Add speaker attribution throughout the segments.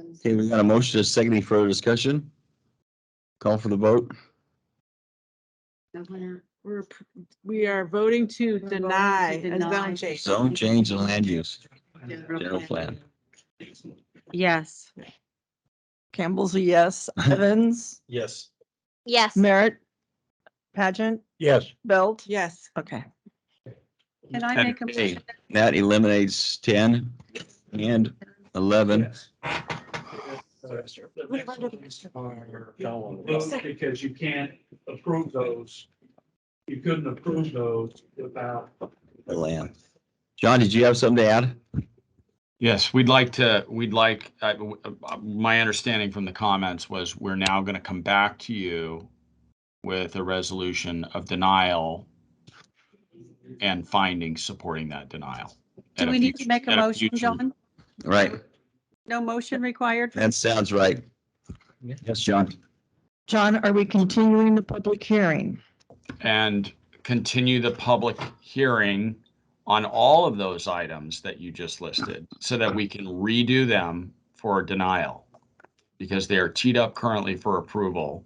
Speaker 1: Okay, we got a motion to second any further discussion. Call for the vote.
Speaker 2: No, we're not.
Speaker 3: We're, p- we are voting to
Speaker 2: voting to
Speaker 3: deny a
Speaker 2: deny.
Speaker 3: zone change.
Speaker 1: Zone change and land use.
Speaker 2: General plan.
Speaker 4: Yes.
Speaker 5: Campbell's a yes. Evans,
Speaker 6: Yes.
Speaker 7: Yes.
Speaker 5: Merritt, Pageant,
Speaker 6: Yes.
Speaker 5: Belt.
Speaker 3: Yes.
Speaker 5: Okay.
Speaker 2: Can I make a
Speaker 1: Okay.
Speaker 2: motion?
Speaker 1: That eliminates ten and eleven.
Speaker 8: Vote Because you can't approve those. You couldn't approve those without.
Speaker 1: The land. John, did you have something to add?
Speaker 9: Yes, we'd like to, we'd like, I- uh, my understanding from the comments was we're now going to come back to you with a resolution of denial and findings supporting that denial.
Speaker 2: Do
Speaker 9: at a
Speaker 2: we need to
Speaker 9: future-
Speaker 2: make a
Speaker 9: at
Speaker 2: motion,
Speaker 9: future-
Speaker 2: John?
Speaker 1: Right,
Speaker 2: No motion required?
Speaker 1: that sounds right. Yes, John.
Speaker 5: John, are we continuing the public hearing?
Speaker 9: And continue the public hearing on all of those items that you just listed so that we can redo them for denial. Because they are teed up currently for approval.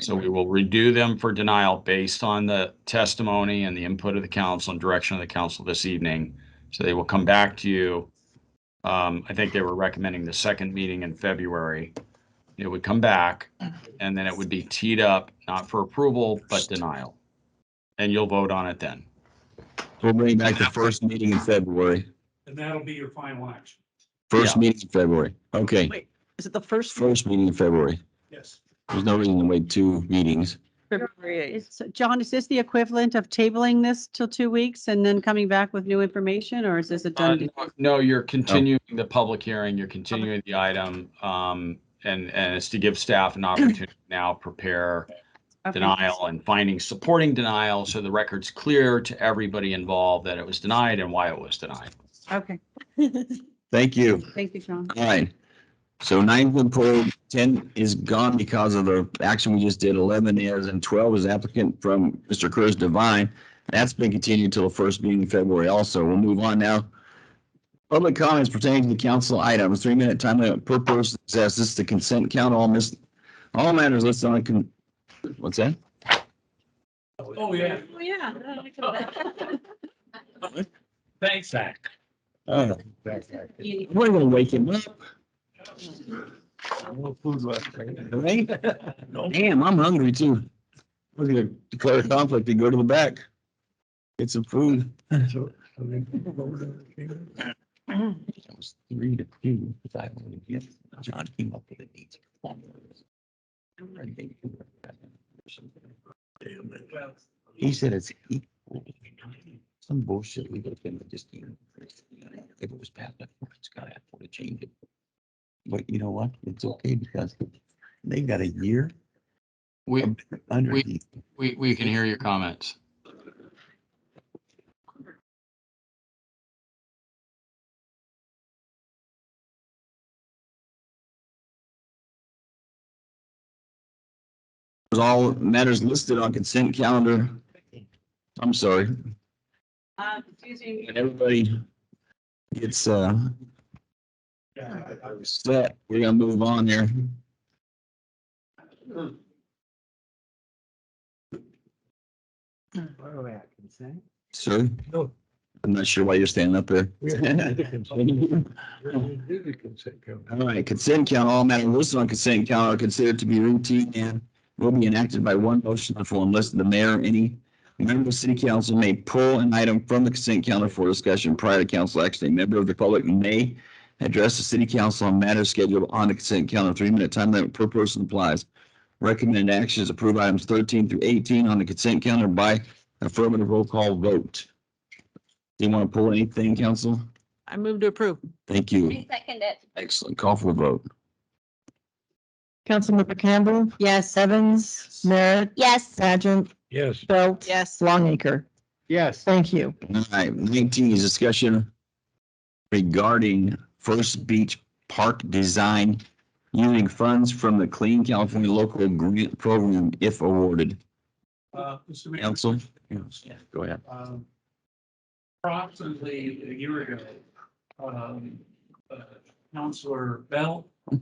Speaker 9: So we will redo them for denial based on the testimony and the input of the council and direction of the council this evening. So they will come back to you. Um, I think they were recommending the second meeting in February. It would come back and then it would be teed up, not for approval, but denial. And you'll vote on it then.
Speaker 1: We'll bring back the first meeting in February,
Speaker 8: And that'll be your final action.
Speaker 1: first
Speaker 9: Yeah.
Speaker 1: meeting in February. Okay,
Speaker 5: Wait, is it the first?
Speaker 1: first meeting in February.
Speaker 8: Yes.
Speaker 1: There's no reason to wait two meetings.
Speaker 5: February
Speaker 2: It's, John, is this the equivalent of tabling this till two weeks and then coming back with new information, or is this a
Speaker 9: Uh,
Speaker 2: done deal?
Speaker 9: no- No, you're continuing the public hearing, you're continuing the item, um, and, and it's to give staff an opportunity to now prepare
Speaker 2: Okay.
Speaker 9: denial and finding supporting denial, so the record's clear to everybody involved that it was denied and why it was denied.
Speaker 2: Okay,
Speaker 1: Thank you.
Speaker 2: thank you, John.
Speaker 1: All right. So nine was pulled, ten is gone because of the action we just did, eleven is, and twelve is applicant from Mr. Chris Devine. That's been continued till the first meeting in February also. We'll move on now. Public comments pertaining to the council items, three minute time limit per person exists. This is the consent count, all miss, all matters listed on, con- what's that?
Speaker 8: Oh, yeah.
Speaker 3: Oh, yeah.
Speaker 8: Thanks, Zach.
Speaker 1: Uh,
Speaker 6: Um,
Speaker 1: We're gonna wake him up.
Speaker 6: No food left.
Speaker 1: Right? Damn, I'm hungry too. We're gonna declare conflict and go to the back. Get some food. That was three to two. because I voted yes. John came up with it. He's He said it's equal. Some bullshit we looked at, just. you know, If it was bad, it's gotta have to change it. But you know what? It's okay because they got a year
Speaker 9: We,
Speaker 1: under.
Speaker 9: We- we, we can hear your comments.
Speaker 1: All matters listed on consent calendar. I'm sorry.
Speaker 2: Uh, excuse me.
Speaker 1: And everybody gets, uh, set. We're gonna move on there. Sir?
Speaker 6: No.
Speaker 1: I'm not sure why you're standing up there. All right, consent count, all matters listed on consent count are considered to be routine and will be enacted by one motion or form unless the mayor or any member of city council may pull an item from the consent calendar for discussion prior to council action. A member of the public may address the city council on matters scheduled on the consent calendar. Three-minute time limit per person applies. Recommended actions, approve items thirteen through eighteen on the consent calendar by affirmative roll call vote. Do you want to pull anything, council?
Speaker 3: I move to approve.
Speaker 1: Thank you.
Speaker 7: I second it.
Speaker 1: Excellent. Call for a vote.
Speaker 5: Councilmember Campbell,
Speaker 2: Yes,
Speaker 5: Evans, Merritt,
Speaker 7: Yes.
Speaker 5: Pageant,
Speaker 6: Yes.
Speaker 5: Belt.
Speaker 3: Yes.
Speaker 5: Longacre.
Speaker 6: Yes.
Speaker 5: Thank you.
Speaker 1: All right, nineteen is discussion regarding First Beach Park design using funds from the Clean California Local Grant Program if awarded.
Speaker 8: Uh, Mr. Mayor.
Speaker 1: Council? Yes, go ahead.
Speaker 8: um, approximately a year ago, um, uh, Counselor Bell